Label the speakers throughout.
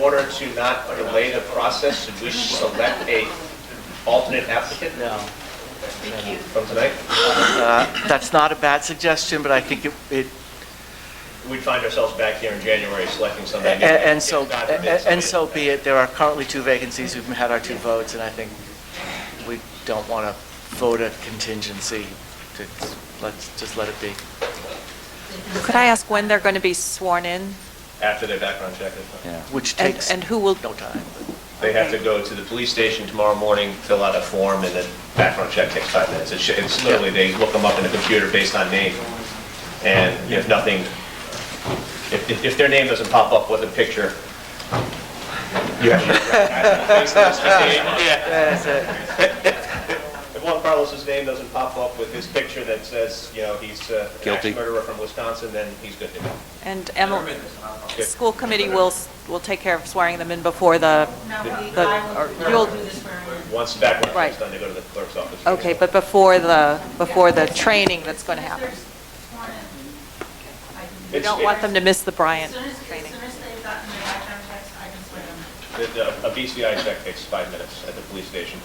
Speaker 1: order to not delay the process, should we select a alternate applicant
Speaker 2: No.
Speaker 1: from tonight?
Speaker 2: Uh, That's not a bad suggestion, but I think it- it,
Speaker 1: We'd find ourselves back here in January selecting
Speaker 2: a-
Speaker 1: somebody. new.
Speaker 2: a- and so,
Speaker 1: God
Speaker 2: a-
Speaker 1: forbid
Speaker 2: a-
Speaker 1: somebody-
Speaker 2: and so be it. There are currently two vacancies. We've had our two votes, and I think we don't want to vote a contingency. It's- Let's just let it be.
Speaker 3: Could I ask when they're going to be sworn in?
Speaker 1: After their background check is done.
Speaker 2: Which
Speaker 3: And
Speaker 2: takes
Speaker 3: and who will,
Speaker 2: no time.
Speaker 1: They have to go to the police station tomorrow morning, fill out a form, and then background check takes five minutes. It's it's literally, they look them up in a computer based on name, and if nothing, if- if if their name doesn't pop up with a picture, you have to recognize them based on this name.
Speaker 2: That's it.
Speaker 1: If Juan Carlos's name doesn't pop up with his picture that says, you know, he's uh, an
Speaker 4: Guilty.
Speaker 1: axe murderer from Wisconsin, then he's good to go.
Speaker 3: and Emily, school committee will, s- will take care of swearing them in before the,
Speaker 5: No, we,
Speaker 3: The-
Speaker 5: I
Speaker 3: or
Speaker 5: will, I
Speaker 3: you'll-
Speaker 5: will do this for,
Speaker 1: Once the background check's
Speaker 3: Right.
Speaker 1: done, they go to the clerk's office.
Speaker 3: okay, but before the, before the training that's going to happen.
Speaker 5: there's sworn in. I can do
Speaker 3: We
Speaker 1: It's-
Speaker 3: don't want them to miss the
Speaker 5: As
Speaker 3: Bryant
Speaker 5: soon as, as
Speaker 3: training.
Speaker 5: soon as they've gotten their background checks, I can swear them.
Speaker 1: The-
Speaker 5: in.
Speaker 1: the- A BCI check takes five minutes at the police station,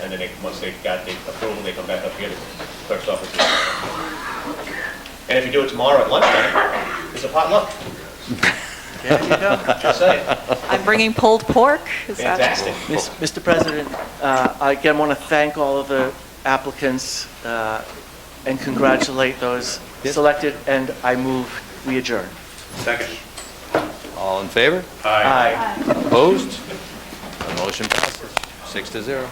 Speaker 1: and then they, once they've got the approval, they come back up here to clerk's office. And if you do it tomorrow at lunchtime, it's a potluck,
Speaker 2: There you go.
Speaker 1: just saying,
Speaker 3: I'm bringing pulled pork. Is that-
Speaker 1: fantastic.
Speaker 2: Miss- Mr. President, uh, I again want to thank all of the applicants uh, and congratulate those selected, and I move we adjourn.
Speaker 1: Second.
Speaker 4: All in favor?
Speaker 2: Aye.
Speaker 4: Opposed? The Motion passes, six to zero.